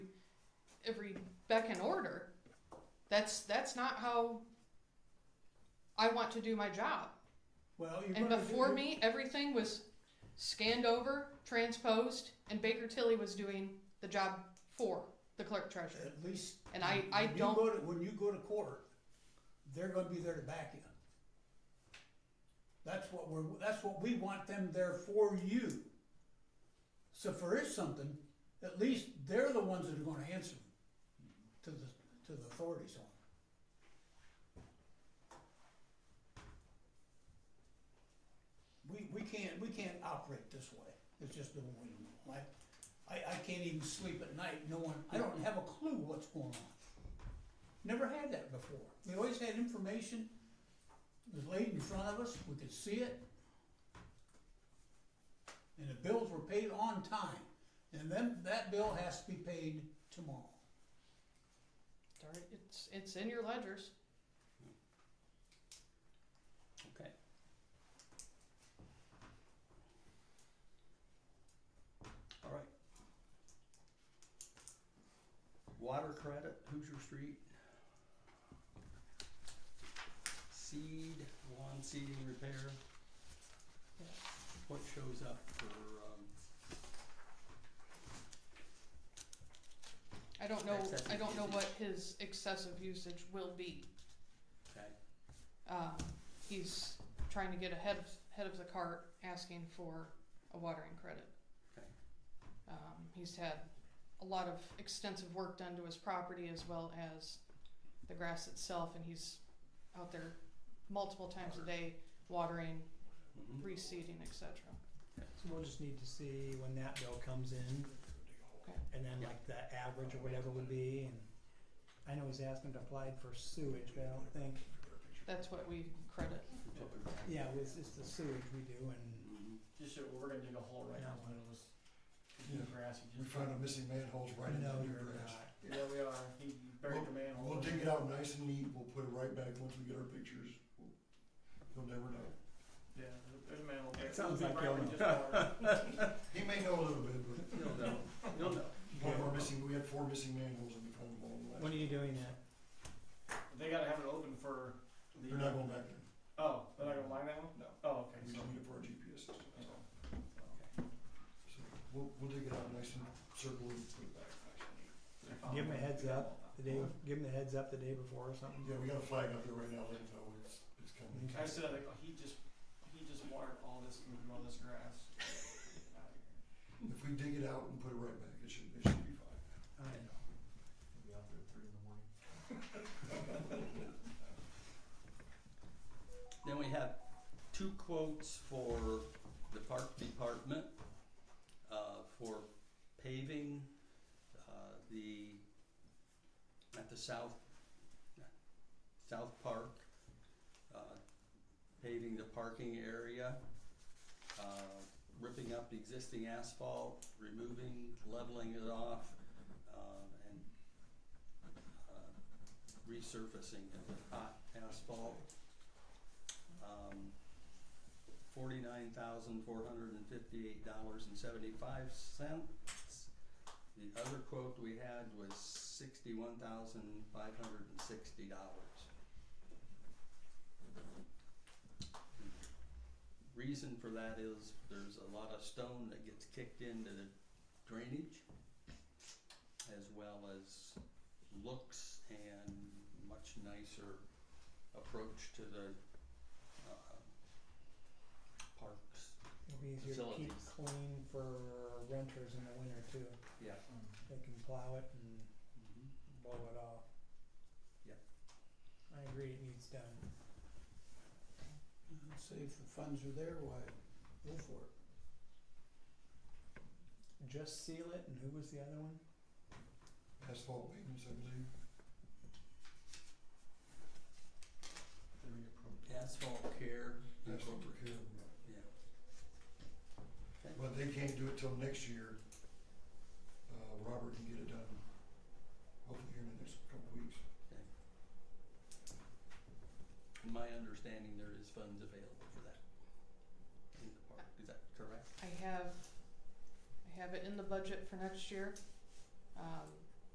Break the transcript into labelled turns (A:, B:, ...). A: every beck and order. That's that's not how I want to do my job.
B: Well, you're
A: And
B: gonna do
A: before
B: it.
A: me, everything was scanned over, transposed, and Baker Tilly was doing the job for the clerk treasurer.
B: At least.
A: And I- I
B: when you
A: don't-
B: go to- When you go to court, they're gonna be there to back you. That's what we're, that's what we want them there for you. So if there is something, at least they're the ones that are gonna answer to the, to the authorities on it. We, we can't, we can't operate this way, it's just the way, we are. I, I, I can't even sleep at night knowing, I don't have a clue what's going on. Never had that before, we always had information, it was laid in front of us, we could see it. And the bills were paid on time, and then that bill has to be paid tomorrow.
A: It's already- It's it's in your ledgers.
C: Okay. All right. Water credit, Hoosier Street. Seed, lawn seeding repair. What shows up for, um,
A: I don't know. I
C: Excessive
A: don't know
C: usage.
A: what his excessive usage will be.
C: okay,
A: Um, he's trying to get ahead of head of the cart, asking for a watering credit.
C: okay,
A: Um, he's had a lot of extensive work done to his property as well as the grass itself, and he's out there multiple times a day watering,
C: mhm,
A: reseeding, etc.
D: So we'll just need to see when that bill comes in, and then like the average or whatever would be, and I know he's asking to apply for sewage, but I don't think,
A: That's what we credit.
C: we took it back.
D: yeah, it's, it's the sewage we do, and
C: Mhm,
E: Just so we're gonna dig a hole right now, one of those deep
F: Yeah.
E: grass. he
F: We
E: just-
F: found a missing manholes right in
D: no,
F: the new
D: you're
F: grass.
D: not.
E: Yeah, we are. He buried the manhole.
F: We'll dig it out nice and neat, we'll put it right back once we get our pictures. He'll never know.
E: Yeah, there's a manhole. there.
C: It sounds
E: We'll dig
C: like
E: right
C: you
E: in just water.
F: He may know a little bit, but
C: You'll know, you'll know.
F: one of our missing, we had four missing manholes and we found them all in the last.
D: When are you doing that?
E: They gotta have it open for the.
F: They're not going back there.
E: Oh, they're not gonna line that one?
F: No.
E: Oh, okay.
F: We
E: so-
F: just need it for our GPS system.
E: so-
F: So we'll, we'll dig it out nice and circle it and put it back nice and neat.
E: so-
D: Give him a heads up the day, bef- give him the heads up the day before or something.
F: Yeah, we got a flag out there right now, let them know it's, it's coming.
E: I said, like, oh, he just, he just watered all this, and all this grass.
F: If we dig it out and put it right back, it should, it should be fine.
D: I know.
F: Be out there at three in the morning.
C: Then we have two quotes for the park department, uh, for paving, uh, the, at the south, south park, uh, paving the parking area, uh, ripping up the existing asphalt, removing, leveling it off, uh, and, uh, resurfacing it with hot asphalt um, forty-nine thousand, four hundred and fifty-eight dollars and seventy-five cents. The other quote we had was sixty-one thousand, five hundred and sixty dollars. Reason for that is there's a lot of stone that gets kicked into the drainage as well as looks and much nicer approach to the uh, parks.
D: It'll be easier to keep
C: Facilities.
D: clean for renters in the winter too,
C: Yeah.
D: they can plow it and
C: Mhm.
D: blow it off.
C: Yep.
D: I agree, it needs done.
B: Say if the funds are there, why, go for it.
D: Just seal it, and who was the other one?
F: Asphalt maintenance, I believe.
C: Asphalt care.
F: Asphalt repair.
C: Yeah.
F: But they can't do it till next year. Uh, Robert can get it done, hopefully here in the next couple weeks.
C: In my understanding, there is funds available for that in the park. Is that correct?
A: I have, I have it in the budget for next year. Um,